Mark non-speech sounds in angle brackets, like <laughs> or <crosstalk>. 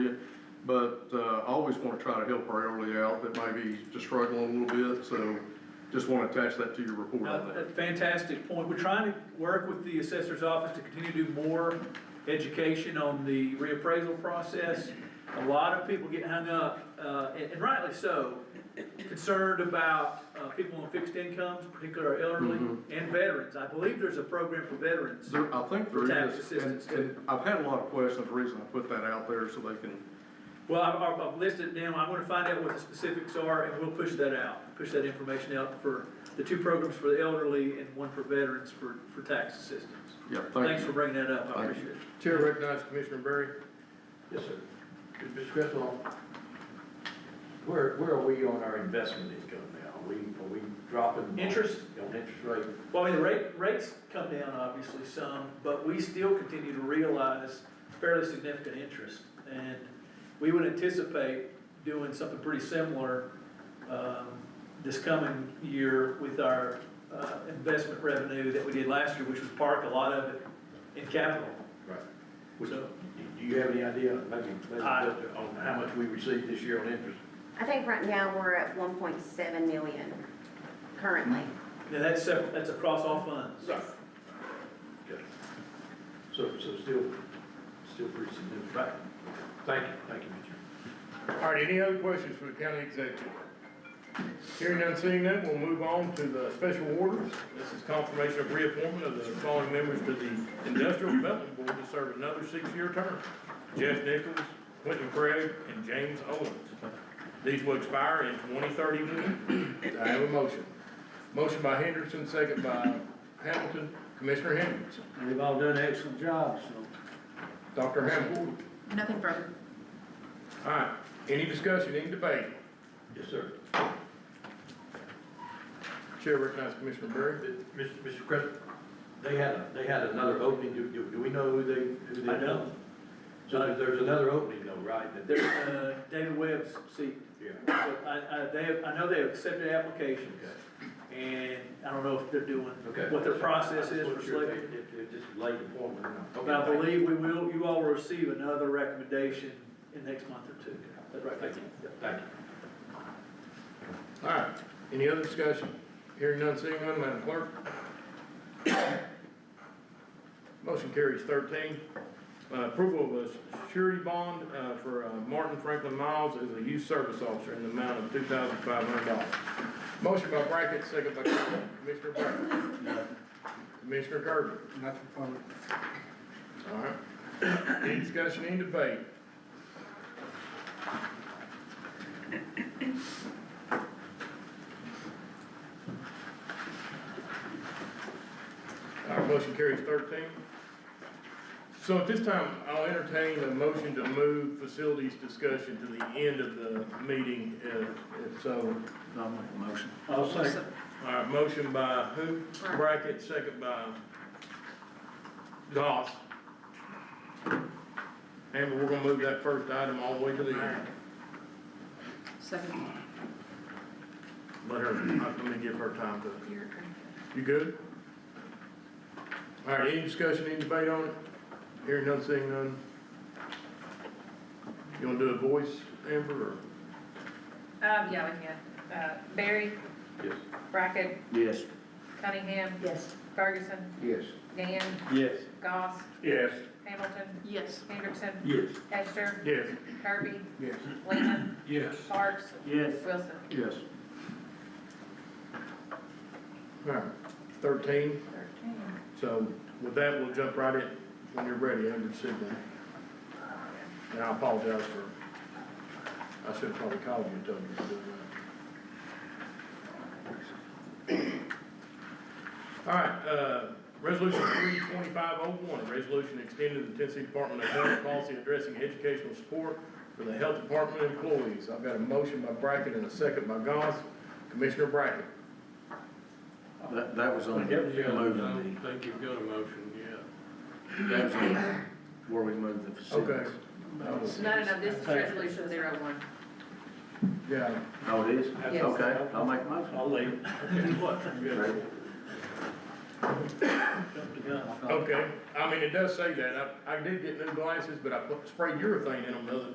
But, uh, I always wanna try to help our elderly out that may be just struggling a little bit, so just wanna attach that to your report No, on a that. fantastic point. We're trying to work with the assessor's office to continue to do more education on the reappraisal process. A lot of people get hung up, uh, and and rightly so, concerned about, uh, people on fixed incomes, particularly our elderly Mm-hmm. and veterans. I believe there's a program for veterans. There, I think For there tax is, and, assistance, and I've had a lot of questions, the reason I put that out there so they can, Well, I've, I've- I've listed them, I'm gonna find out what the specifics are, and we'll push that out, push that information out for the two programs for the elderly and one for veterans for, for tax assistance. yeah, thank Thanks you. for bringing that up, I Thank you. appreciate it. Chair recognizes Commissioner Berry. Yes, sir. Ms. Crystal, where, where are we on our investment income now? Are we, are we dropping? Interest? On interest rate? Well, I mean, the rate, rates come down obviously some, but we still continue to realize fairly significant interest. And we would anticipate doing something pretty similar, um, this coming year with our, uh, investment revenue that we did last year, which was parked a lot of it in capital. Right. Which, So- do you have any idea, maybe, maybe, I- on how much we received this year on interest? I think right now we're at one point seven million currently, Now, that's separate, that's across all funds. yes. Okay. So, so still, still pretty significant. Right. Thank you, thank you, Mr. All right, any other questions for the county executive? Hearing none, seeing none, we'll move on to the special orders. This is confirmation of reappointment of the following members to the Industrial Development Board to serve another six-year term. Jeff Nichols, Quentin Craig, and James Owens. These will expire in twenty thirty-one. I have a motion. Motion by Henderson, second by Hamilton. Commissioner Henderson, And they've all done an excellent job, so. Dr. Hamilton. Nothing further. All right, any discussion, any debate? Yes, sir. Chair recognizes Commissioner Berry. Mr. Mr. Crystal, they had, they had another opening, do, do, do we know who they, who they? I don't. So there- there's another opening though, right? that- There's, uh, David Webb's seat. Yeah. So I, I, they have, I know they have accepted applications. Okay. And I don't know if they're doing, Okay. what their process is for Just what you're- selecting. if- if Just late appointment. or not. But I believe we will, you all will receive another recommendation in next month or two. That's right, thank you. Thank you. All right, any other discussion? Hearing none, seeing none, Madam Clerk. Motion carries thirteen. Uh, Approval of a surety bond uh, for uh, Martin Franklin Miles as a youth service officer in the amount of two thousand five hundred dollars. Motion by Brackett, second by Kirby. Commissioner Brackett. Commissioner Kirby. Nothing further. All right. Any discussion, any debate? Our motion carries thirteen. So at this time, I'll entertain a motion to move facilities discussion to the end of the meeting, if, if so. I'll make a motion. I'll second. All right, motion by who? Brackett. Brackett, second by Goss. Amber, we're gonna move that first item all the way to the end. Second. Let her, let me give her time to, you good? All right, any discussion, any debate on it? Hearing none, seeing none. You wanna do a voice, Amber, or? Um, yeah, we can. Uh, Barry, Yes. Brackett, Yes. Cunningham. Yes. Ferguson, Yes. Gann, Yes. Goss, Yes. Hamilton, Yes. Hendrickson, Yes. Hester, Yes. Kirby, Yes. Lehman, Yes. Parks, Yes. Wilson. Yes, All right, thirteen. Thirteen. So with that, we'll jump right in when you're ready, Andrew Sibley. And I apologize for, I should have probably called you and told you to do that. All right, uh, resolution three twenty-five oh one, resolution extending the Tennessee Department of Health policy addressing educational support for the health department employees. I've got a motion by Brackett and a second by Goss. Commissioner Brackett. That, that was on moving think you've got a motion yet. the, that was on where we moved the Okay. facilities. No, no, no, this is resolution zero one. Yeah. Oh, it is? Yes. Okay, I'll make a motion. I'll leave. <laughs> Great. Okay, I mean, it does say that, I, I did get new glasses, but I put- sprayed urethane in them the other